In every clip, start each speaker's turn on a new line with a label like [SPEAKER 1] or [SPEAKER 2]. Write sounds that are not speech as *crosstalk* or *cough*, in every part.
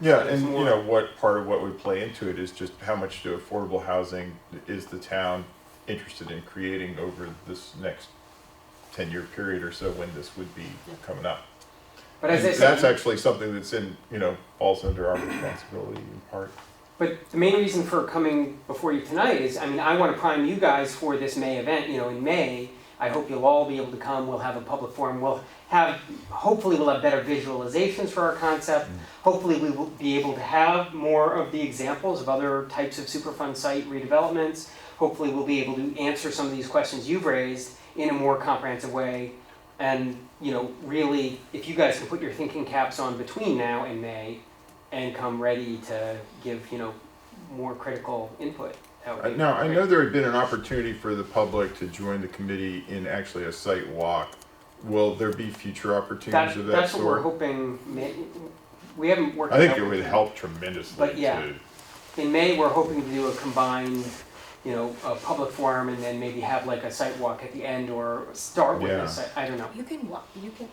[SPEAKER 1] Yeah,
[SPEAKER 2] It's
[SPEAKER 1] and you
[SPEAKER 2] more-
[SPEAKER 1] know what part of what would play into it is just how much do affordable housing is the town interested in creating over this next ten-year period or so when this would be coming up.
[SPEAKER 3] But as I
[SPEAKER 1] And that's
[SPEAKER 3] said,
[SPEAKER 1] actually something that's in you know falls under our responsibility in part.
[SPEAKER 3] but the main reason for coming before you tonight is, I mean, I want to prime you guys for this May event, you know, in May. I hope you'll all be able to come, we'll have a public forum, we'll have, hopefully we'll have better visualizations for our concept.
[SPEAKER 1] Mm.
[SPEAKER 3] Hopefully we will be able to have more of the examples of other types of Superfund site redevelopments. Hopefully we'll be able to answer some of these questions you've raised in a more comprehensive way. And, you know, really, if you guys can put your thinking caps on between now and May and come ready to give, you know, more critical input. that would
[SPEAKER 1] Uh,
[SPEAKER 3] be
[SPEAKER 1] Now, I
[SPEAKER 3] great.
[SPEAKER 1] know there had been an opportunity for the public to join the committee in actually a site walk. Will there be future opportunities
[SPEAKER 3] That,
[SPEAKER 1] of that
[SPEAKER 3] that's what we're
[SPEAKER 1] sort?
[SPEAKER 3] hoping, may- we haven't worked.
[SPEAKER 1] I think
[SPEAKER 3] out-
[SPEAKER 1] it would help tremendously
[SPEAKER 3] But yeah.
[SPEAKER 1] to
[SPEAKER 3] In May, we're hoping to do a combined, you know, a public forum and then maybe have like a site walk at the end or start with
[SPEAKER 1] Yeah.
[SPEAKER 3] a site, I don't know.
[SPEAKER 4] You can wa- you can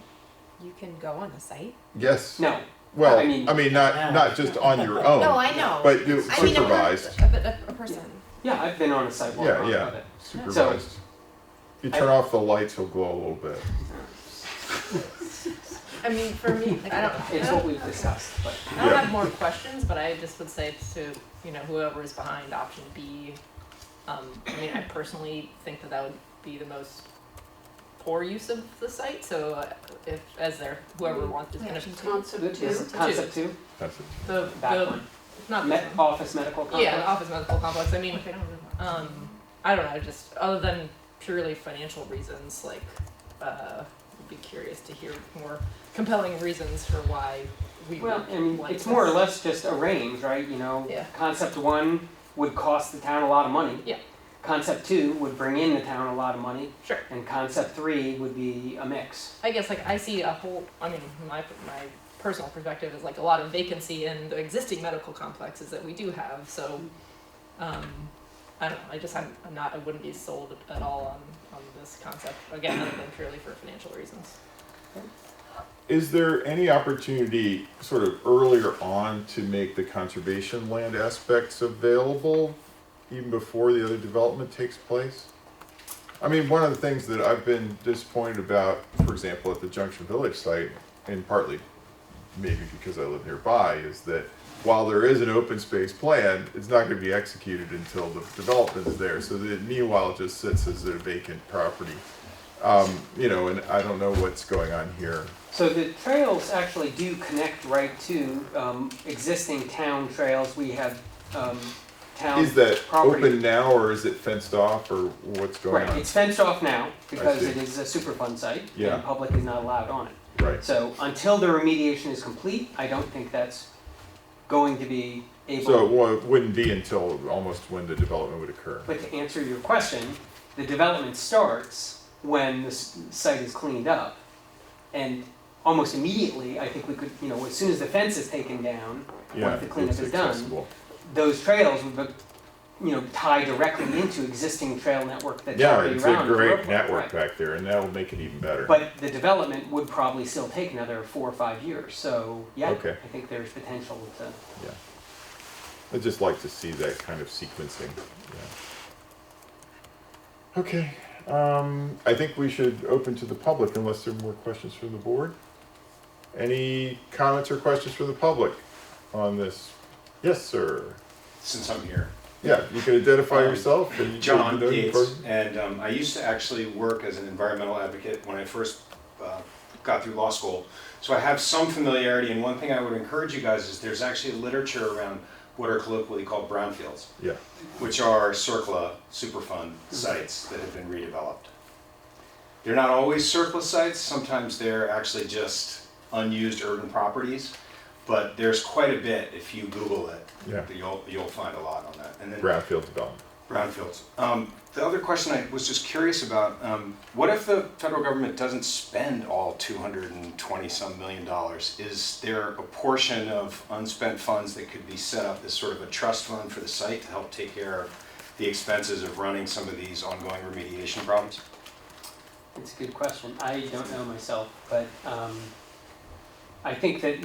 [SPEAKER 4] you can go on a site.
[SPEAKER 1] Yes.
[SPEAKER 3] No,
[SPEAKER 1] Well,
[SPEAKER 3] I mean-
[SPEAKER 1] I mean, not, not just on your own.
[SPEAKER 4] *laughs* no, I know.
[SPEAKER 1] Oh, But you
[SPEAKER 4] I mean, a per-
[SPEAKER 1] supervised.
[SPEAKER 4] a, a, a person.
[SPEAKER 3] yeah, I've been on a site walk
[SPEAKER 1] Yeah,
[SPEAKER 3] on
[SPEAKER 1] yeah.
[SPEAKER 3] it.
[SPEAKER 1] Supervised. You turn off the lights, he'll glow a little bit.
[SPEAKER 5] I mean, for me, like, I don't, I
[SPEAKER 3] It's what
[SPEAKER 5] don't,
[SPEAKER 3] we've discussed, but.
[SPEAKER 5] I don't
[SPEAKER 1] Yeah.
[SPEAKER 5] have more questions, but I just would say to, you know, whoever is behind option B, um, I mean, I personally think that that would be the most poor use of the site, so uh, if, as their, whoever wants is gonna.
[SPEAKER 4] Reaction to-
[SPEAKER 5] Concept
[SPEAKER 3] Is Concept two,
[SPEAKER 1] That's it.
[SPEAKER 5] The,
[SPEAKER 3] that
[SPEAKER 5] the,
[SPEAKER 3] one,
[SPEAKER 5] not
[SPEAKER 3] Me-
[SPEAKER 5] this one.
[SPEAKER 3] office medical complex.
[SPEAKER 5] Yeah, the office medical complex, I mean,
[SPEAKER 4] If they don't really want to.
[SPEAKER 5] um, I don't know, just other than purely financial reasons, like, uh, I'd be curious to hear more compelling reasons for why we would
[SPEAKER 3] Well, I mean,
[SPEAKER 5] like
[SPEAKER 3] it's more or
[SPEAKER 5] this.
[SPEAKER 3] less just a range, right, you know?
[SPEAKER 5] Yeah.
[SPEAKER 3] Concept one would cost the town a lot of money.
[SPEAKER 5] Yeah.
[SPEAKER 3] Concept two would bring in the town a lot of money,
[SPEAKER 5] Sure.
[SPEAKER 3] and concept three would be a mix.
[SPEAKER 5] I guess like I see a whole. I mean, my my personal perspective is like a lot of vacancy in the existing medical complexes that we do have. So, um, I don't know. I just I'm, I'm not. I wouldn't be sold at all on on this concept again, other than purely for financial reasons.
[SPEAKER 1] Is there any opportunity, sort of earlier on, to make the conservation land aspects available even before the other development takes place? I mean, one of the things that I've been disappointed about, for example, at the Junction Village site, and partly maybe because I live nearby, is that while there is an open space plan, it's not gonna be executed until the development is there, so that meanwhile, it just sits as a vacant property. Um, you know, and I don't know what's going on here.
[SPEAKER 3] So the trails actually do connect right to um, existing town trails. We have um, town
[SPEAKER 1] Is that
[SPEAKER 3] property.
[SPEAKER 1] open now or is it fenced off or what's going
[SPEAKER 3] Right,
[SPEAKER 1] on?
[SPEAKER 3] it's fenced off now because
[SPEAKER 1] see.
[SPEAKER 3] it is a superfund site
[SPEAKER 1] Yeah.
[SPEAKER 3] and public is not allowed on it.
[SPEAKER 1] Right,
[SPEAKER 3] So until the remediation is complete, I don't think that's going to be able.
[SPEAKER 1] so it wa- wouldn't be until almost when the development would occur.
[SPEAKER 3] But to answer your question, the development starts when the s- site is cleaned up. And almost immediately, I think we could, you know, as soon as the fence is taken down,
[SPEAKER 1] Yeah,
[SPEAKER 3] the cleanup
[SPEAKER 1] it's
[SPEAKER 3] is done.
[SPEAKER 1] accessible.
[SPEAKER 3] those trails would, be- you know, tie directly into existing trail network that's
[SPEAKER 1] Yeah,
[SPEAKER 3] already
[SPEAKER 1] it's
[SPEAKER 3] around.
[SPEAKER 1] a
[SPEAKER 3] in
[SPEAKER 1] great
[SPEAKER 3] Brooklyn,
[SPEAKER 1] network
[SPEAKER 3] right.
[SPEAKER 1] back there and that'll make it even better.
[SPEAKER 3] But the development would probably still take another four or five years, so, yeah,
[SPEAKER 1] Okay.
[SPEAKER 3] I think there's potential to.
[SPEAKER 1] I'd just like to see that kind of sequencing, yeah. Okay, um, I think we should open to the public unless there are more questions from the board. Any comments or questions from the public on this? Yes, sir.
[SPEAKER 6] since I'm here.
[SPEAKER 1] Yeah, you can identify
[SPEAKER 6] Um,
[SPEAKER 1] yourself and you can
[SPEAKER 6] John
[SPEAKER 1] know your
[SPEAKER 6] Gates,
[SPEAKER 1] person.
[SPEAKER 6] and um, I used to actually work as an environmental advocate when I first uh, got through law school. So I have some familiarity, and one thing I would encourage you guys is there's actually literature around what are colloquially called brownfields,
[SPEAKER 1] Yeah,
[SPEAKER 6] which are CERCLA Superfund sites that have been redeveloped. They're not always CERCLA sites, sometimes they're actually just unused urban properties, but there's quite a bit, if you Google it,
[SPEAKER 1] yeah,
[SPEAKER 6] that you'll, you'll find a lot on that. And then
[SPEAKER 1] brownfield development.
[SPEAKER 6] brownfields. Um, the other question I was just curious about, um, what if the federal government doesn't spend all two hundred and twenty some million dollars? Is there a portion of unspent funds that could be set up as sort of a trust fund for the site to help take care of the expenses of running some of these ongoing remediation problems?
[SPEAKER 3] It's a good question. I don't know myself, but um, I think that